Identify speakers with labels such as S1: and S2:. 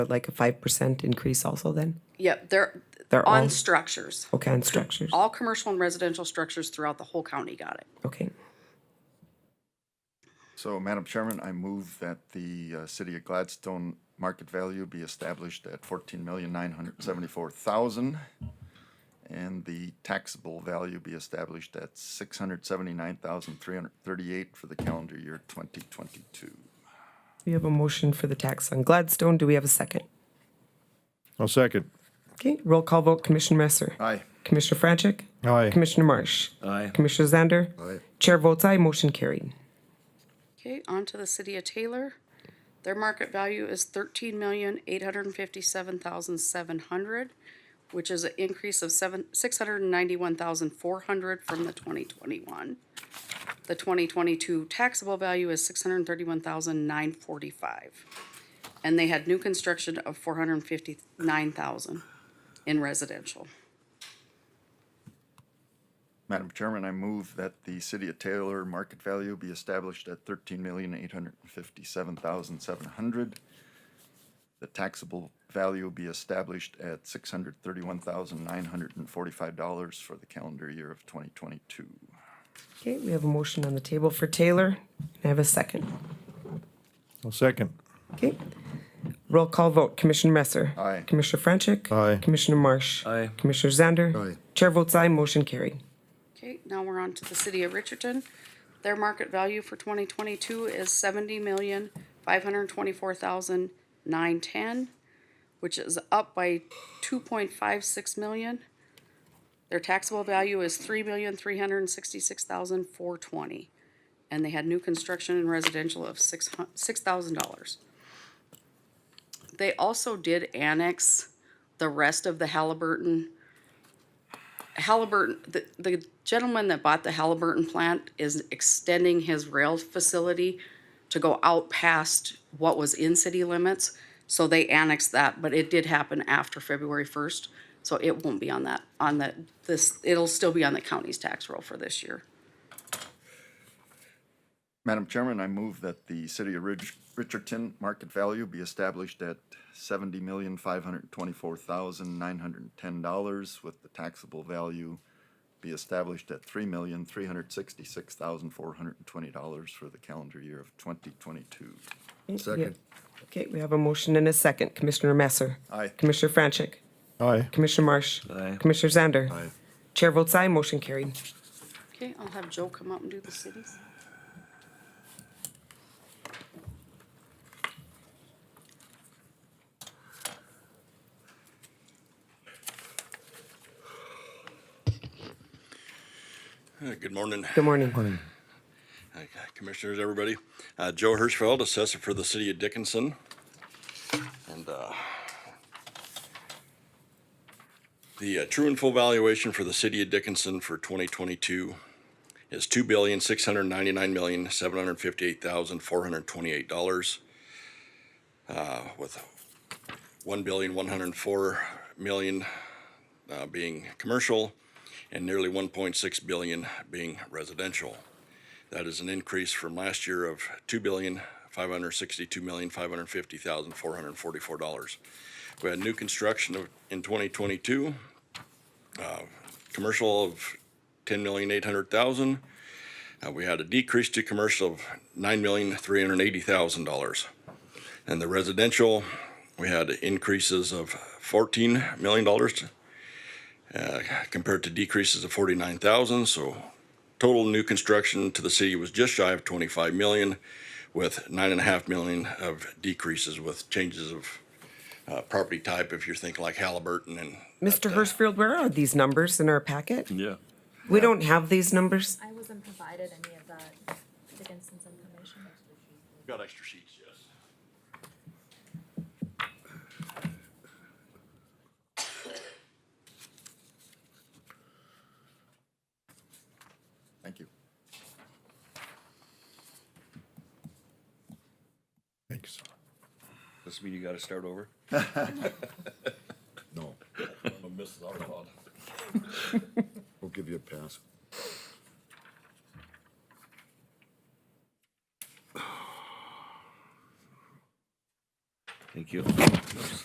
S1: like a five percent increase also then?
S2: Yep, they're,
S1: They're all-
S2: on structures.
S1: Okay, on structures,
S2: All commercial and residential structures throughout the whole county got it.
S1: okay.
S3: So, Madam Chairman, I move that the uh, City of Gladstone market value be established at fourteen million nine hundred seventy-four thousand, and the taxable value be established at six hundred seventy-nine thousand three hundred thirty-eight for the calendar year twenty twenty-two.
S1: We have a motion for the tax on Gladstone. Do we have a second?
S4: I'll second.
S1: Okay, roll call vote, Commissioner Messer.
S3: Aye.
S1: Commissioner Franchek.
S4: Aye.
S1: Commissioner Marsh.
S5: Aye.
S1: Commissioner Zander.
S3: Aye.
S1: Chair votes aye, motion carried.
S2: Okay, on to the city of Taylor. Their market value is thirteen million, eight hundred and fifty-seven thousand, seven hundred, which is an increase of seven, six hundred and ninety-one thousand, four hundred from the twenty twenty-one. The twenty twenty-two taxable value is six hundred and thirty-one thousand, nine forty-five. And they had new construction of four hundred and fifty-nine thousand in residential.
S3: Madam Chairman, I move that the City of Taylor market value be established at thirteen million eight hundred fifty-seven thousand seven hundred. The taxable value be established at six hundred thirty-one thousand nine hundred and forty-five dollars for the calendar year of twenty twenty-two.
S1: Okay, we have a motion on the table for Taylor. I have a second.
S4: I'll second.
S1: Okay. Roll call vote, Commissioner Messer.
S3: Aye.
S1: Commissioner Franchek.
S4: Aye.
S1: Commissioner Marsh.
S5: Aye.
S1: Commissioner Zander.
S3: Aye.
S1: Chair votes aye, motion carried.
S2: Okay, now we're on to the city of Richardson. Their market value for twenty twenty-two is seventy million, five hundred twenty-four thousand, nine ten, which is up by two point five six million. Their taxable value is three million, three hundred and sixty-six thousand, four twenty. And they had new construction and residential of six hun- six thousand dollars. They also did annex the rest of the Halliburton Halliburton, the, the gentleman that bought the Halliburton plant is extending his rail facility to go out past what was in city limits. So they annexed that, but it did happen after February first. So it won't be on that, on the, this, it'll still be on the county's tax roll for this year.
S3: Madam Chairman, I move that the City of Ridge, Richardson market value be established at seventy million five hundred twenty-four thousand nine hundred and ten dollars with the taxable value be established at three million three hundred sixty-six thousand four hundred and twenty dollars for the calendar year of twenty twenty-two.
S1: Second. Okay, we have a motion and a second. Commissioner Messer.
S3: Aye.
S1: Commissioner Franchek.
S4: Aye.
S1: Commissioner Marsh.
S5: Aye.
S1: Commissioner Zander. Chair votes aye, motion carried.
S2: Okay, I'll have Joe come up and do the cities.
S6: Uh, Good morning,
S1: Good morning.
S6: uh, Commissioners, everybody. Uh, Joe Hirschfeld, Assessor for the City of Dickinson. And uh, the uh, true and full valuation for the City of Dickinson for 2022 is $2,699,758,428 uh, with $1,104,000,000 uh, being commercial and nearly 1.6 billion being residential. That is an increase from last year of two billion, five hundred sixty-two million, five hundred fifty thousand, four hundred forty-four dollars. We had new construction of, in twenty twenty-two, uh, commercial of ten million, eight hundred thousand. Uh, we had a decrease to commercial of nine million, three hundred eighty thousand dollars. And the residential, we had increases of fourteen million dollars, uh, compared to decreases of forty-nine thousand, so Total new construction to the city was just shy of 25 million, with nine and a half million of decreases with changes of uh, property type, if you're thinking like Halliburton and. uh,
S1: Mr. Hirschfield, where are these numbers in our packet?
S5: Yeah.
S1: We don't have these numbers.
S7: I wasn't provided any of that Dickinson's information.
S6: Got extra sheets, yes.
S3: Thank you.
S4: Thanks.
S5: This mean you gotta start over?
S8: No, we'll give you a pass.
S5: Any Thank you.